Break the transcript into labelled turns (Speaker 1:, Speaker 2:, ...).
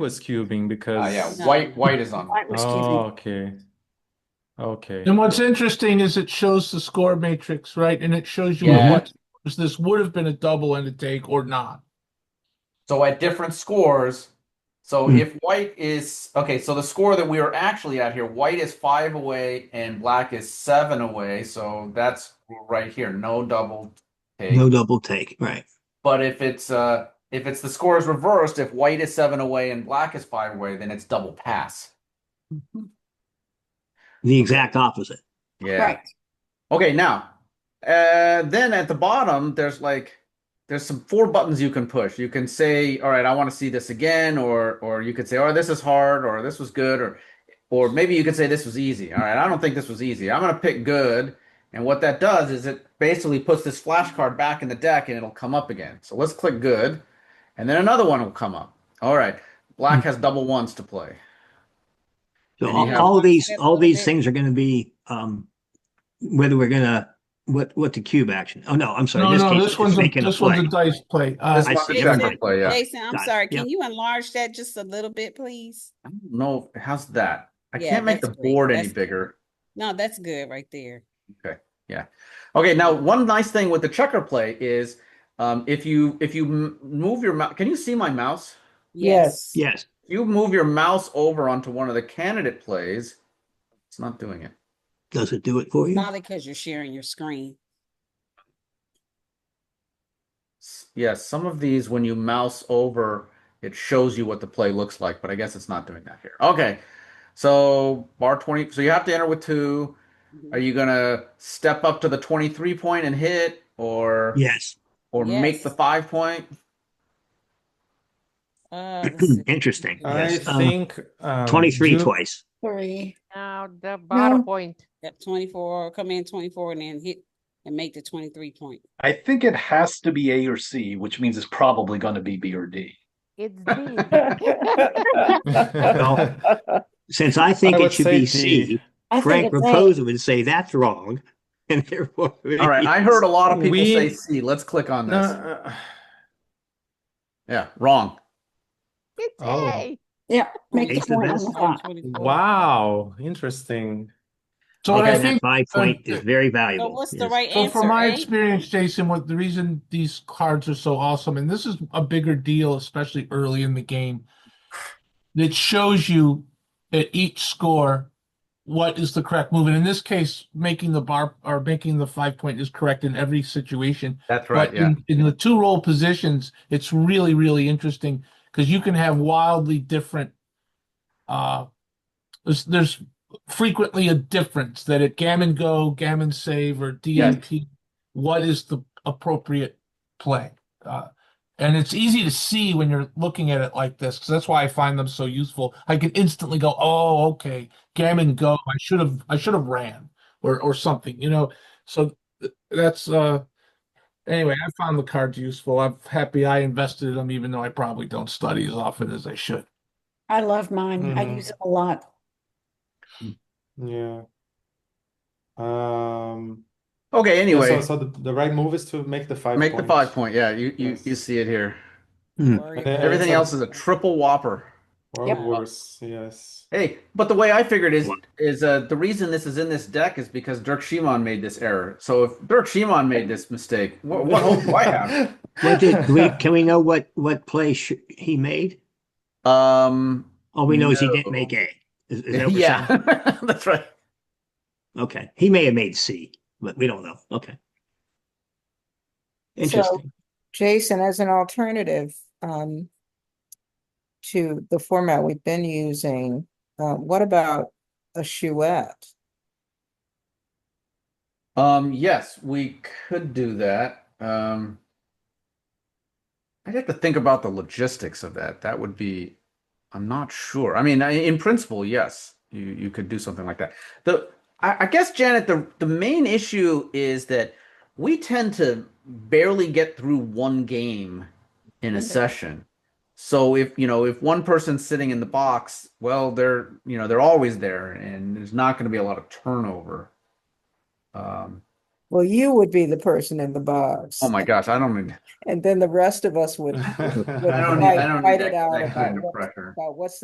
Speaker 1: was cubing because.
Speaker 2: Ah, yeah,
Speaker 3: No.
Speaker 2: white, white is on.
Speaker 3: White was
Speaker 1: Oh,
Speaker 3: cubing.
Speaker 1: okay. Okay.
Speaker 4: And what's interesting is it shows the score matrix, right? And it shows you
Speaker 2: Yeah.
Speaker 4: what this would have been a double and a take or not.
Speaker 2: So at different scores, so
Speaker 5: Hmm.
Speaker 2: if white is okay, so the score that we are actually at here, white is five away and black is seven away. So that's right here, no double take.
Speaker 5: No double take, right?
Speaker 2: But if it's uh if it's the score is reversed, if white is seven away and black is five away, then it's double pass.
Speaker 3: Mhm.
Speaker 5: The exact opposite.
Speaker 2: Yeah.
Speaker 3: Right.
Speaker 2: Okay, now, uh, then at the bottom, there's like there's some four buttons you can push. You can say, "All right, I want to see this again," or or you could say, "Oh, this is hard," or "This was good," or or maybe you could say, "This was easy." All right, I don't think this was easy. I'm gonna pick good. And what that does is it basically puts this flashcard back in the deck and it'll come up again. So let's click good, and then another one will come up. All right,
Speaker 5: Hmm.
Speaker 2: black has double ones to play.
Speaker 5: So
Speaker 2: And you
Speaker 5: all,
Speaker 2: have-
Speaker 5: all these,
Speaker 3: Yeah,
Speaker 5: all
Speaker 3: double
Speaker 5: these
Speaker 3: take.
Speaker 5: things are gonna be, um, whether we're gonna, what, what the cube action? Oh, no, I'm sorry.
Speaker 4: No,
Speaker 5: this
Speaker 4: no,
Speaker 5: case
Speaker 4: this
Speaker 5: is
Speaker 4: one's, a-
Speaker 5: making a
Speaker 4: this one's a
Speaker 5: play.
Speaker 4: dice play. Uh,
Speaker 2: This
Speaker 5: I
Speaker 2: one
Speaker 5: see
Speaker 2: is
Speaker 5: everybody.
Speaker 2: second play, yeah.
Speaker 3: Jason, I'm
Speaker 5: Got it.
Speaker 3: sorry,
Speaker 5: Yep.
Speaker 3: can you enlarge that just a little bit, please?
Speaker 2: I don't know how's that. I
Speaker 3: Yeah,
Speaker 2: can't make the
Speaker 3: that's great.
Speaker 2: board any
Speaker 3: That's-
Speaker 2: bigger.
Speaker 3: No, that's good right there.
Speaker 2: Okay, now one nice thing with the checker play is um, if you if you m- move your mouse, can you see my mouse?
Speaker 3: Yes.
Speaker 5: Yes,
Speaker 2: If you move your mouse over onto one of the candidate plays, it's not doing it.
Speaker 5: does it do it for you?
Speaker 3: Probably because you're sharing your screen.
Speaker 2: S- Yes, some of these when you mouse over, it shows you what the play looks like, but I guess it's not doing that here. Okay, so bar twenty. So you have to enter with two.
Speaker 3: Mm-hmm.
Speaker 2: Are you gonna step up to the twenty-three point and hit, or
Speaker 5: Yes,
Speaker 2: or make
Speaker 3: Yes.
Speaker 2: the five point?
Speaker 3: Uh, let's see.
Speaker 5: interesting,
Speaker 1: I
Speaker 5: yes. Um,
Speaker 1: think um,
Speaker 5: Twenty-three
Speaker 1: Ju-
Speaker 5: twice.
Speaker 6: Three.
Speaker 7: Now the bar
Speaker 6: No.
Speaker 7: point.
Speaker 3: Yep, twenty-four, come in twenty-four and then hit and make the twenty-three point.
Speaker 8: I think it has to be A or C, which means it's probably going to be B or D.
Speaker 7: It's D.
Speaker 5: Since I think
Speaker 1: would
Speaker 5: it should
Speaker 1: say
Speaker 5: be
Speaker 1: D.
Speaker 5: C,
Speaker 6: I
Speaker 5: Frank
Speaker 6: think it's eight.
Speaker 5: Raposa would say that's wrong. And therefore.
Speaker 2: All right, I heard a lot of people
Speaker 1: We-
Speaker 2: say C. Let's click on
Speaker 1: No,
Speaker 2: this.
Speaker 1: uh,
Speaker 2: Yeah, wrong.
Speaker 7: It's
Speaker 1: Oh.
Speaker 7: A.
Speaker 6: Yeah, make
Speaker 5: Eight
Speaker 6: the
Speaker 5: to
Speaker 6: point on
Speaker 5: this.
Speaker 6: the top.
Speaker 3: 24.
Speaker 1: wow, interesting.
Speaker 4: so what I
Speaker 5: Okay, that
Speaker 4: think,
Speaker 5: five point is very
Speaker 3: So
Speaker 5: valuable.
Speaker 3: what's the
Speaker 5: yes.
Speaker 3: right
Speaker 4: so
Speaker 3: answer?
Speaker 4: from my
Speaker 3: eh?
Speaker 4: experience, Jason, what the reason these cards are so awesome, and this is a bigger deal, especially early in the game, it shows you at each score what is the correct move. And in this case, making the bar or making the five point is correct in every situation.
Speaker 2: That's
Speaker 4: But in, in the two role positions, it's really, really interesting because you can have wildly different. Uh, there's, there's frequently a difference that at gammon go, gammon save, or DMP, what is the appropriate play? Uh, and it's easy to see when you're looking at it like this because that's why I find them so useful. I can instantly go, oh, okay, gammon go. I should have, I should have ran or or something, you know. So th- that's uh Anyway, I found the cards useful. I'm happy I invested in them, even though I probably don't study as often as I should.
Speaker 6: I love mine. I
Speaker 1: Mhm.
Speaker 6: use it a lot.
Speaker 1: Yeah. Um.
Speaker 2: Okay,
Speaker 1: yeah, so-
Speaker 2: anyway,
Speaker 1: so, the, the right move is to make the five.
Speaker 2: make the
Speaker 1: points.
Speaker 2: five point. Yeah, you, you,
Speaker 1: Yes.
Speaker 2: you see it here.
Speaker 3: Worry
Speaker 1: And then
Speaker 3: about
Speaker 2: Everything
Speaker 3: it.
Speaker 1: Everything-
Speaker 2: else is a triple whopper.
Speaker 1: Or
Speaker 6: Yep.
Speaker 1: worse. Yes.
Speaker 2: Hey, but the way I figured is
Speaker 5: What?
Speaker 2: is uh, the reason this is in this deck is because Dirk Shimon made this error. So if Dirk Shimon made this mistake, what, what hope do I have?
Speaker 5: What did, do we, can we know what, what play sh- he made?
Speaker 2: Um,
Speaker 5: All we know is he didn't
Speaker 2: No.
Speaker 5: make A. Is, is that what we're
Speaker 2: yeah,
Speaker 5: saying?
Speaker 2: that's right.
Speaker 5: Okay, he may have made C, but we don't know. Okay. Interesting.
Speaker 9: Jason, as an alternative, um, to the format we've been using, uh, what about a chouette?
Speaker 2: Um, yes, we could do that. Um, I'd have to think about the logistics of that. That would be, I'm not sure. I mean, I, in principle, yes, you you could do something like that. The I, I guess Janet, the the main issue is that we tend to barely get through one game in a
Speaker 6: Mhm.
Speaker 2: session. So if you know if one person's sitting in the box, well, they're you know they're always there, and there's not going to be a lot of turnover. Um,
Speaker 9: Well, you would be the person in the box.
Speaker 2: Oh my gosh, I don't need.
Speaker 9: And then the rest of us would. would
Speaker 1: I
Speaker 2: I don't need. I
Speaker 9: fight-
Speaker 2: don't
Speaker 9: fight
Speaker 2: need
Speaker 9: it
Speaker 2: that,
Speaker 9: out
Speaker 2: that
Speaker 9: about
Speaker 2: kind of
Speaker 9: what-
Speaker 2: pressure.
Speaker 9: About what's